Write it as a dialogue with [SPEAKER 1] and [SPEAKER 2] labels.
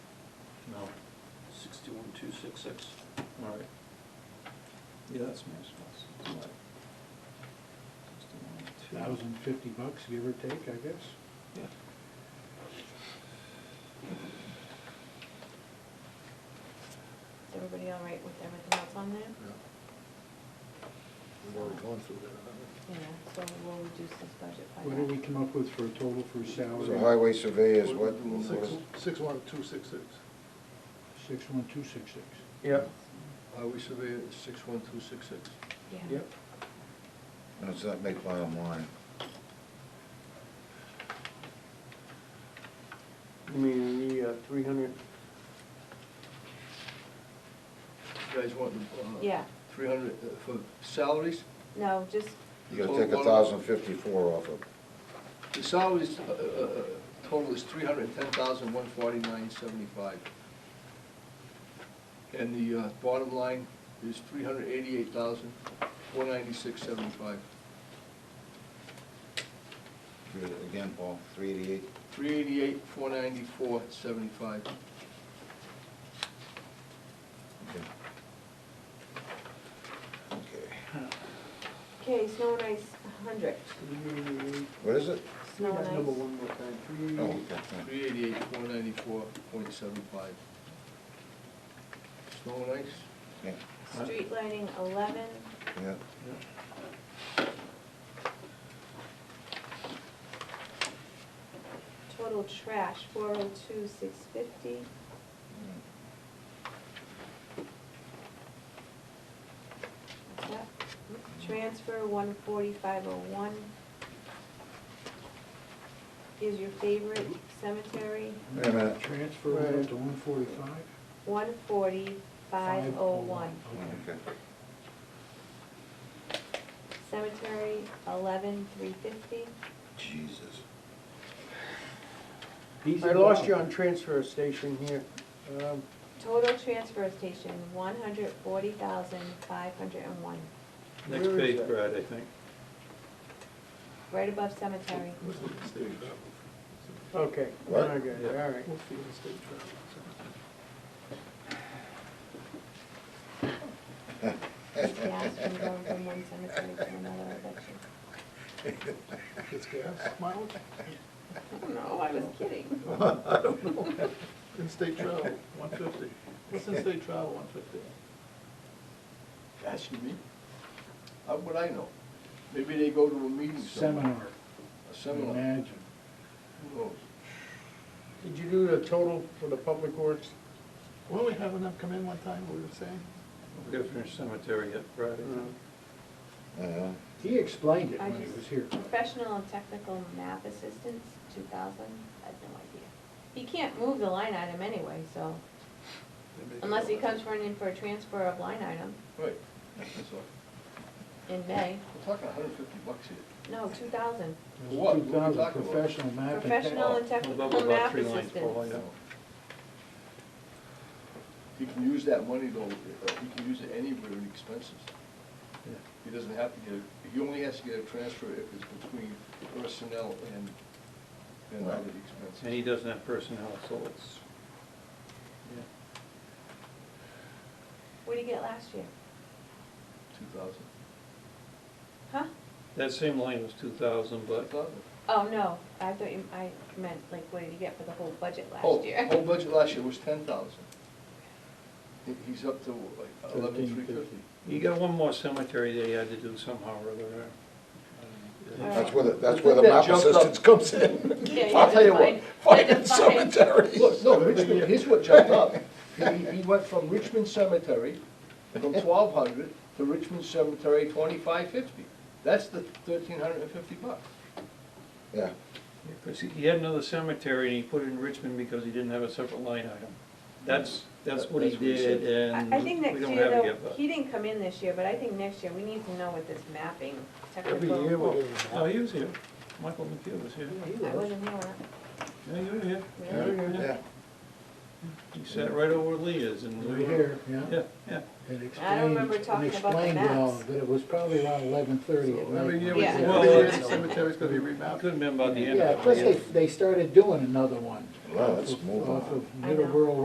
[SPEAKER 1] No.
[SPEAKER 2] Sixty-one, two, six, six.
[SPEAKER 1] All right. Yeah, that's nice.
[SPEAKER 3] Thousand fifty bucks, give or take, I guess.
[SPEAKER 1] Yeah.
[SPEAKER 4] Is everybody all right with everything else on there?
[SPEAKER 5] We've already gone through
[SPEAKER 4] Yeah, so we'll reduce this budget by that.
[SPEAKER 3] What did we come up with for a total for
[SPEAKER 5] that.
[SPEAKER 3] salary?
[SPEAKER 5] So highway survey is what?
[SPEAKER 6] Six, six one two six six.
[SPEAKER 3] Six one two six six.
[SPEAKER 6] Yep. Highway surveyor is six one two six six.
[SPEAKER 4] Yeah.
[SPEAKER 6] Yep.
[SPEAKER 5] Does that make bottom line?
[SPEAKER 7] You mean the three hundred,
[SPEAKER 6] You guys want, uh.
[SPEAKER 4] Yeah.
[SPEAKER 6] Three hundred, uh, for salaries?
[SPEAKER 4] No, just,
[SPEAKER 5] You gotta take a thousand fifty-four off of,
[SPEAKER 6] The salaries, uh, uh, uh, total is three hundred and ten thousand, one forty-nine, seventy-five. And the, uh, bottom line is three hundred eighty-eight thousand, four ninety-six, seventy-five.
[SPEAKER 5] again, Paul, three eighty-eight.
[SPEAKER 6] Three eighty-eight, four ninety-four, seventy-five.
[SPEAKER 5] Okay. Okay.
[SPEAKER 4] okay, snow and ice, a hundred.
[SPEAKER 7] three eighty-eight,
[SPEAKER 5] What is it?
[SPEAKER 4] Snow and
[SPEAKER 7] number
[SPEAKER 4] ice,
[SPEAKER 7] one more time, three
[SPEAKER 5] Oh,
[SPEAKER 7] eighty-eight.
[SPEAKER 5] okay, yeah.
[SPEAKER 6] Three eighty-eight, four ninety-four, point seven five. Snow and ice?
[SPEAKER 5] yeah,
[SPEAKER 4] street lighting, eleven,
[SPEAKER 5] yeah.
[SPEAKER 4] total trash, four oh two, six fifty. What's that? Transfer, one forty-five oh one. Is your favorite cemetery,
[SPEAKER 5] Wait a minute.
[SPEAKER 3] Transfer went up to one forty-five?
[SPEAKER 4] one forty-five oh one.
[SPEAKER 5] Okay.
[SPEAKER 4] Cemetery, eleven, three fifty.
[SPEAKER 5] Jesus.
[SPEAKER 7] I lost you on transfer station here. Um,
[SPEAKER 4] Total transfer station, one hundred forty thousand, five hundred and one,
[SPEAKER 1] Next
[SPEAKER 7] Where is
[SPEAKER 1] page,
[SPEAKER 7] that?
[SPEAKER 1] Brad, I think.
[SPEAKER 4] right above cemetery.
[SPEAKER 7] Okay,
[SPEAKER 5] What?
[SPEAKER 7] I got it, all right.
[SPEAKER 4] Just gas from going from one cemetery to another, I bet you.
[SPEAKER 6] It's gas mileage
[SPEAKER 4] No, I was kidding.
[SPEAKER 6] in state travel, one fifty. What's in state travel, one fifty? Gosh, you mean? How would I know? Maybe they go to a meeting somewhere.
[SPEAKER 3] Seminar,
[SPEAKER 6] A seminar.
[SPEAKER 3] imagine.
[SPEAKER 6] Who knows?
[SPEAKER 7] Did you do the total for the public works?
[SPEAKER 6] Well, we have enough come in one time, we were saying.
[SPEAKER 1] We gotta finish cemetery yet, Brad, I think.
[SPEAKER 5] Uh-huh.
[SPEAKER 3] He explained it
[SPEAKER 4] I
[SPEAKER 3] when he
[SPEAKER 4] just-
[SPEAKER 3] was here.
[SPEAKER 4] Professional and technical map assistance, two thousand, I have no idea. He can't move the line item anyway, so, unless he comes running in for a transfer of line item
[SPEAKER 6] Right, that's all.
[SPEAKER 4] in May,
[SPEAKER 6] We're talking a hundred fifty bux here.
[SPEAKER 4] no, two thousand.
[SPEAKER 6] What? What
[SPEAKER 3] Two
[SPEAKER 6] we
[SPEAKER 3] thousand
[SPEAKER 6] talking about?
[SPEAKER 3] professional map. and
[SPEAKER 4] Professional and
[SPEAKER 1] Well,
[SPEAKER 4] technical
[SPEAKER 1] above about
[SPEAKER 4] map
[SPEAKER 1] three lines, Paul,
[SPEAKER 4] assistance.
[SPEAKER 1] yeah.
[SPEAKER 6] He can use that money though, uh, he can use it anywhere in expenses. He doesn't have to get, a- he only has to get a transfer if it's between personnel and, and
[SPEAKER 5] Right.
[SPEAKER 6] other
[SPEAKER 1] And he
[SPEAKER 6] expenses.
[SPEAKER 1] doesn't have personnel, so it's,
[SPEAKER 4] What did he get last year?
[SPEAKER 6] Two thousand.
[SPEAKER 4] Huh?
[SPEAKER 1] that same line was two thousand,
[SPEAKER 6] Two
[SPEAKER 1] but
[SPEAKER 6] thousand?
[SPEAKER 4] Oh, no, I thought you, I meant, like, what did he get for the whole budget
[SPEAKER 6] Oh,
[SPEAKER 4] last year?
[SPEAKER 6] Whole budget last year was ten thousand. He's up to like eleven three fifty.
[SPEAKER 3] 13,350.
[SPEAKER 1] you got one more cemetery that he had to do somehow or other.
[SPEAKER 5] That's where the, that's
[SPEAKER 6] I
[SPEAKER 5] where the
[SPEAKER 6] think that
[SPEAKER 5] map
[SPEAKER 6] jumped up.
[SPEAKER 5] assistance comes in.
[SPEAKER 4] Yeah, you
[SPEAKER 5] I'll tell you
[SPEAKER 4] define-
[SPEAKER 5] what,
[SPEAKER 4] you
[SPEAKER 5] fucking
[SPEAKER 4] define-
[SPEAKER 5] cemeteries.
[SPEAKER 6] Look, no, Richmond, here's what jumped up. He, he went from Richmond Cemetery, from twelve hundred to Richmond Cemetery twenty-five fifty. That's the thirteen hundred and fifty bucks.
[SPEAKER 5] Yeah,
[SPEAKER 1] Because he had another cemetery and he put it in Richmond because he didn't have a separate line item. That's, that's what he
[SPEAKER 6] That's what he
[SPEAKER 1] did and
[SPEAKER 4] I I think
[SPEAKER 1] we
[SPEAKER 4] next
[SPEAKER 1] don't
[SPEAKER 4] year,
[SPEAKER 1] have it yet,
[SPEAKER 4] though,
[SPEAKER 1] but.
[SPEAKER 4] he didn't come in this year, but I think next year, we need to know what this mapping
[SPEAKER 5] Every
[SPEAKER 4] technical.
[SPEAKER 5] year we do.
[SPEAKER 1] No, Oh, he was here. Michael McHugh was here.
[SPEAKER 4] I wasn't here when
[SPEAKER 1] Yeah, you were here.
[SPEAKER 4] I, really?
[SPEAKER 5] yeah.
[SPEAKER 1] He sat right over where Lee is and.
[SPEAKER 3] Right here,
[SPEAKER 1] Yeah, yeah.
[SPEAKER 3] And
[SPEAKER 4] I don't
[SPEAKER 3] explained,
[SPEAKER 4] remember
[SPEAKER 3] and
[SPEAKER 4] talking about the
[SPEAKER 3] explained it all,
[SPEAKER 4] maps.
[SPEAKER 3] but it was probably around eleven thirty at night.
[SPEAKER 4] we Yeah. do.
[SPEAKER 1] Well, it's-
[SPEAKER 6] cemetery's gonna be remapped.
[SPEAKER 1] Couldn't have been about the end of it.
[SPEAKER 3] Yeah, plus they, they started doing another one.
[SPEAKER 5] Well, let's move
[SPEAKER 3] Off
[SPEAKER 5] on.
[SPEAKER 3] of
[SPEAKER 4] I know.
[SPEAKER 3] Middleborough